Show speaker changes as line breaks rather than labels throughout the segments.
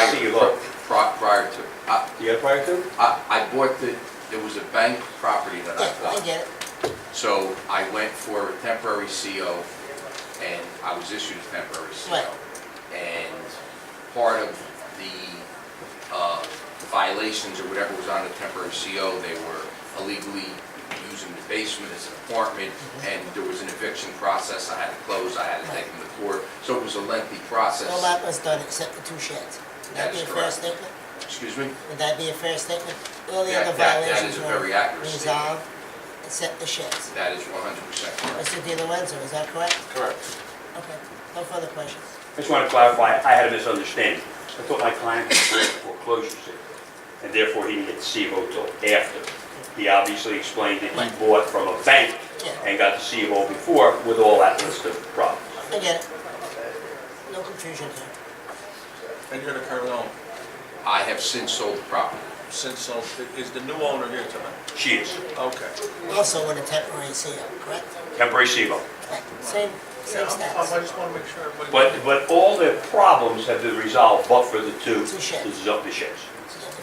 see you look.
pri- Prior to, I,
Do you have prior to?
I I bought the, there was a bank property that I
Yeah, I
bought.
get it.
So I went for a temporary CO, and I was issued a temporary CO.
Right.
And part of the uh, violations or whatever was on the temporary CO, they were illegally using the basement as an apartment,
Mm-hmm.
and there was an eviction process, I had to close, I had to take them to court, so it was a lengthy process.
No lot was done except the two sheds. Would
That
that
is
be a fair
correct.
statement?
Excuse me?
Would that be a fair statement? All the
That-
other
that- that is
violations
a
were
very accurate statement.
resolved except the sheds.
That is 100% correct.
Mr. Di Lorenzo, is that correct?
Correct.
Okay, no further questions.
I just want to clarify, I had a misunderstanding. I thought my client was going for foreclosure sale, and therefore he didn't get the CVO till after. He obviously explained that he bought from a bank and got the CVO before with all that list of problems.
I get it. No confusion here.
And you're the current owner.
I have since sold the property.
Since, so, is the new owner here tonight?
She is,
Okay.
Also with a temporary CO, correct?
temporary CVO.
Right. Same,
Yeah,
same
I'm- I'm- I
stats.
just want to make sure everybody.
But, but all the problems have been resolved but for the two,
Two sheds.
the zombie sheds.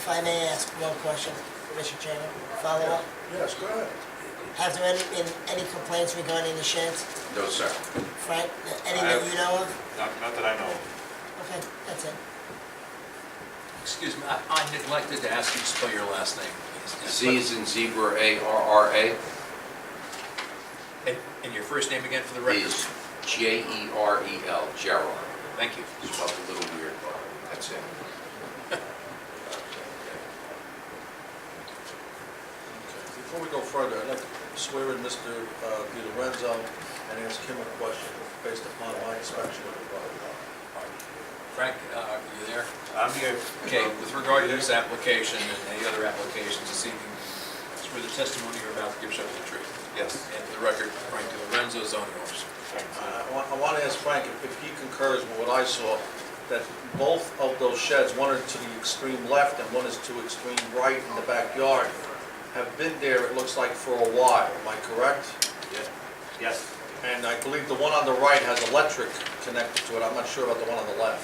If I may ask one question, Mr. Chairman, follow up.
Yes, go ahead.
Have there any, been any complaints regarding the sheds,
No, sir.
Frank? Any that you know of?
Not, not that I know of.
Okay, that's it.
Excuse me, I- I neglected to ask you to spell your last name.
Z is in zebra, A R R A,
And and your first name again for the record?
is J E R E L, Gerald.
Thank you.
Spelled a little weird, but that's it.
Before we go further, I'd like to swear in Mr. uh, Di Lorenzo and ask him a question based upon my inspection of the property.
Frank, uh, are you there?
I'm here,
Okay, with regard to this application and the other applications this evening, it's for the testimony you're about to give shows the truth.
yes.
And for the record, Frank DiLorenzo, zoning officer.
Uh, I want- I want to ask Frank if- if he concurs with what I saw, that both of those sheds, one is to the extreme left and one is to extreme right in the backyard, have been there, it looks like, for a while. Am I correct?
Yes.
And I believe the one on the right has electric connected to it. I'm not sure about the one on the left,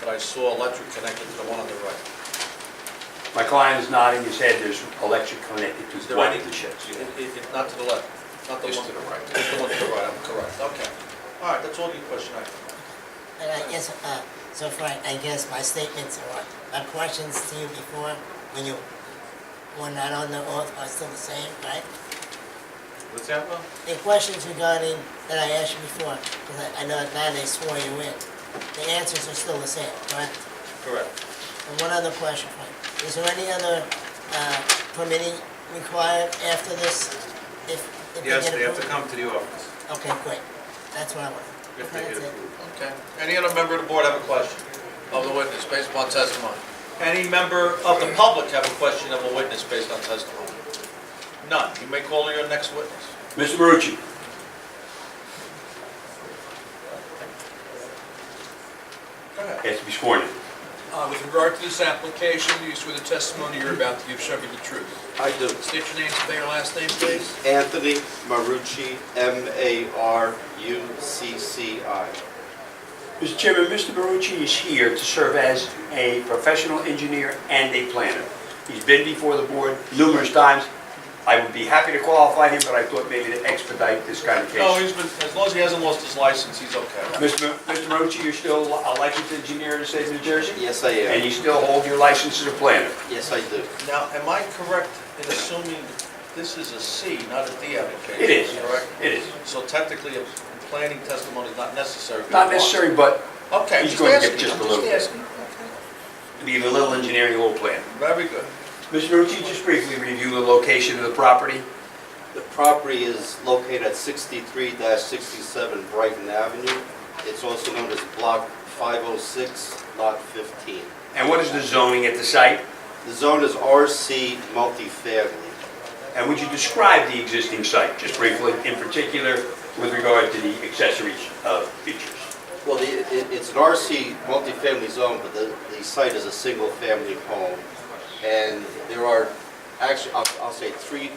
but I saw electric connected to the one on the right.
My client is nodding his head, there's electric connected
Is
to
there
one
any-
of the sheds.
It- it- it- Not to the left, not the one.
Just to the right.
Just the one to the right, I'm correct. Okay. All right, that's all the question I have.
And I guess, uh, so Frank, I guess my statements or my questions to you before, when you were not on the oath, are still the same, right?
What's that, Will?
The questions regarding, that I asked you before, because I know that now they swore you in, the answers are still the same, correct?
Correct.
And one other question, Frank, is there any other uh, permitting required after this? If if
Yes,
get
they have to
approved?
come to the office.
Okay, great, that's what I wanted.
If they
Okay,
get
that's it.
approved.
Okay. Any other member of the board have a question of the witness based upon testimony? Any member of the public have a question of a witness based on testimony? None. You may call your next witness.
Mr. Marucci?
Go ahead.
Has to be sworn in.
Uh, With regard to this application, you swear the testimony you're about to give shows the truth.
I do.
State your name, spell your last name, please.
Anthony Marucci, M-A-R-U-C-C-I.
Mr. Chairman, Mr. Marucci is here to serve as a professional engineer and a planner. He's been before the board numerous times. I would be happy to qualify him, but I thought maybe to expedite this kind of
No,
case.
he's been, as long as he hasn't lost his license, he's okay.
Mr. Ma- Mr. Marucci, you're still a licensed engineer in the state of New Jersey?
Yes, I
And
am.
you still hold your license as a planner?
Yes, I do.
Now, am I correct in assuming this is a C, not a D application?
It is,
Correct?
it is.
So technically, a planning testimony is not necessary? if you
Not
want.
necessary, but
Okay.
He's
just
going to get
asking,
just a
I'm
little bit.
asking, okay.
be a little engineering, a little planner.
Very good.
Mr. Marucci, just briefly review the location of the property.
The property is located at 63-67 Brighton Avenue. It's also known as Block 506, Lot 15.
And what is the zoning at the site?
The zone is RC multifamily.
And would you describe the existing site, just briefly, in particular with regard to the accessory uh, features?
Well, the- it- it's an RC multifamily zone, but the the site is a single-family home. And there are, actually, I'll I'll say, three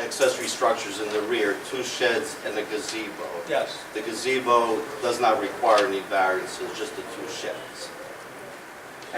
accessory structures in the rear, two sheds and a gazebo.
Yes.
The gazebo does not require any variances, just the two sheds.